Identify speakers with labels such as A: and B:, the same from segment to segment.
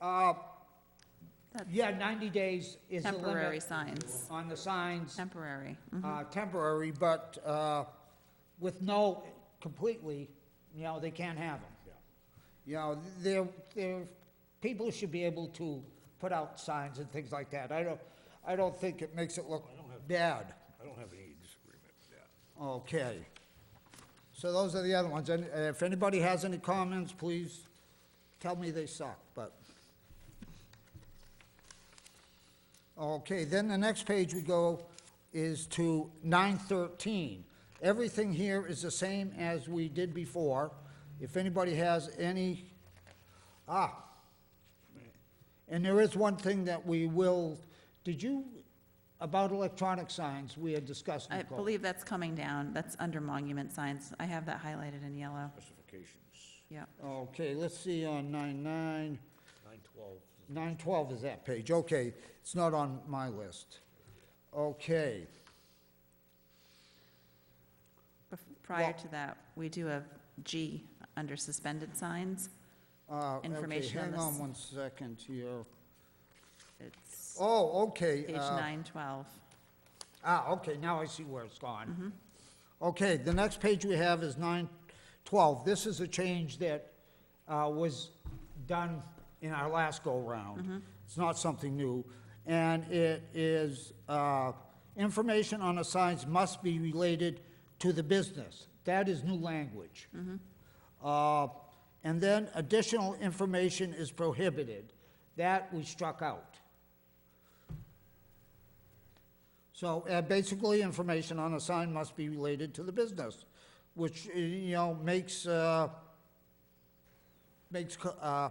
A: Uh, Yeah, 90 days is the limit.
B: Temporary signs.
A: On the signs,
B: Temporary. Mm-hmm.
A: uh, temporary, but uh, with no, completely, you know, they can't have them. You know, there, there, people should be able to put out signs and things like that. I don't, I don't think it makes it look bad.
C: I don't have any disagreement with that.
A: Okay. So those are the other ones. And uh, if anybody has any comments, please tell me they suck, but. Okay, then the next page we go is to nine thirteen. Everything here is the same as we did before. If anybody has any, ah. And there is one thing that we will, did you, about electronic signs, we had discussed,
B: I
A: Nicole.
B: believe that's coming down. That's under monument signs. I have that highlighted in yellow.
C: Specifications,
B: Yeah.
A: Okay, let's see on nine nine,
C: nine twelve.
A: nine twelve is that page, okay, it's not on my list. Okay,
B: Bef- Prior
A: Well-
B: to that, we do have G under suspended signs.
A: uh, okay,
B: Information on
A: hang
B: this.
A: on one second here.
B: It's
A: Oh, okay.
B: page
A: uh,
B: 912.
A: Ah, okay, now I see where it's gone. Okay, the next page we have is nine twelve. This is a change that uh, was done in our last go-round. It's not something new. And it is, uh, information on the signs must be related to the business. That is new language. Uh, And then additional information is prohibited. That we struck out. So uh, basically, information on a sign must be related to the business, which, uh, you know, makes, uh, makes co- uh,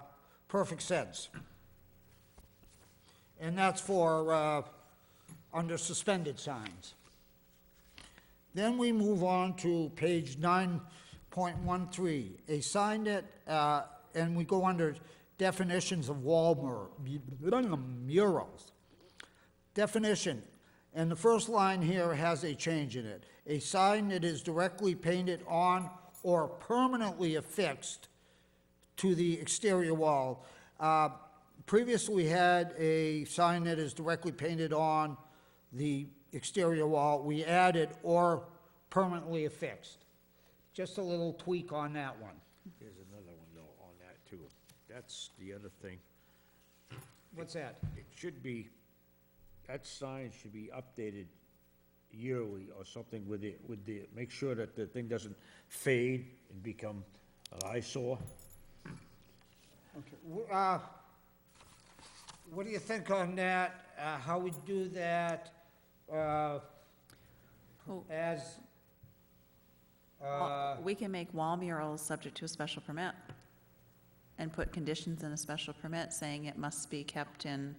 A: perfect sense. And that's for, uh, under suspended signs. Then we move on to page 9.13, a sign that, uh, and we go under definitions of wall mur- murals. Definition, and the first line here has a change in it. A sign that is directly painted on or permanently affixed to the exterior wall. Uh, Previously, we had a sign that is directly painted on the exterior wall. We added or permanently affixed. Just a little tweak on that one.
C: There's another one though on that too. That's the other thing.
A: What's that?
C: It should be, that sign should be updated yearly or something with it, with the, make sure that the thing doesn't fade and become an eyesore.
A: Okay, w- uh, What do you think on that, Uh, how we do that uh,
B: Oh.
A: as, Uh,
B: Well, We can make wall murals subject to a special permit and put conditions in a special permit saying it must be kept in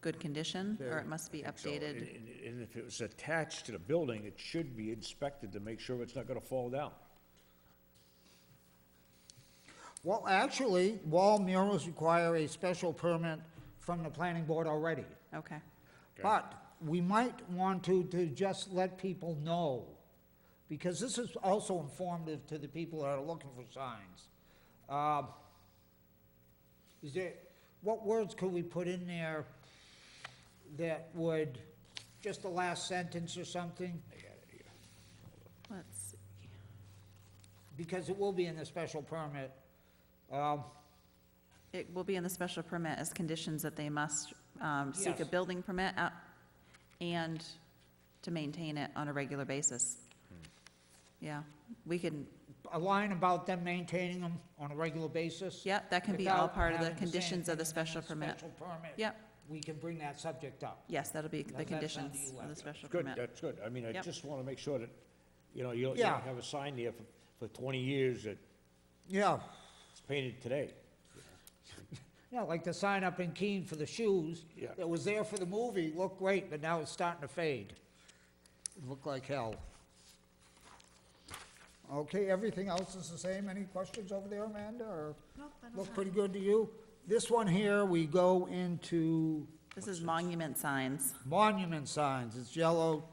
B: good condition or it must be
C: So,
B: updated.
C: and- And and if it was attached to the building, it should be inspected to make sure it's not gonna fall down.
A: well, actually, wall murals require a special permit from the planning board already.
B: Okay.
A: But we might want to, to just let people know, because this is also informative to the people that are looking for signs. Um, Is there, what words could we put in there that would, just the last sentence or something?
B: Let's see.
A: Because it will be in the special permit. Um,
B: It will be in the special permit as conditions that they must um, seek a
A: Yes.
B: building permit out- and to maintain it on a regular basis.
A: Hmm.
B: Yeah, we can,
A: A line about them maintaining them on a regular basis?
B: yep, that can be all
A: without
B: part of the
A: having to say
B: conditions of the
A: anything in
B: special permit.
A: Special permit.
B: Yep,
A: We can bring that subject up.
B: yes, that'll be
A: How's
B: the
A: that sound to
B: conditions
A: you,
B: of the
A: Leslie?
B: special
C: Good, uh,
B: permit.
C: that's good. I mean, I
B: Yep.
C: just wanna make sure that, you know, you don't you
A: Yeah.
C: don't have a sign there for, for twenty years that
A: Yeah.
C: it's painted today.
A: Yeah, like the sign up in Keene for the shoes.
C: Yeah.
A: That was there for the movie, looked great, but now it's starting to fade. Look like hell. Okay, everything else is the same. Any questions over there, Amanda, or? Look pretty good to you? This one here, we go into
B: This is monument signs.
A: monument signs. It's yellow.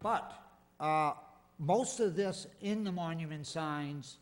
A: But, uh, most of this in the monument signs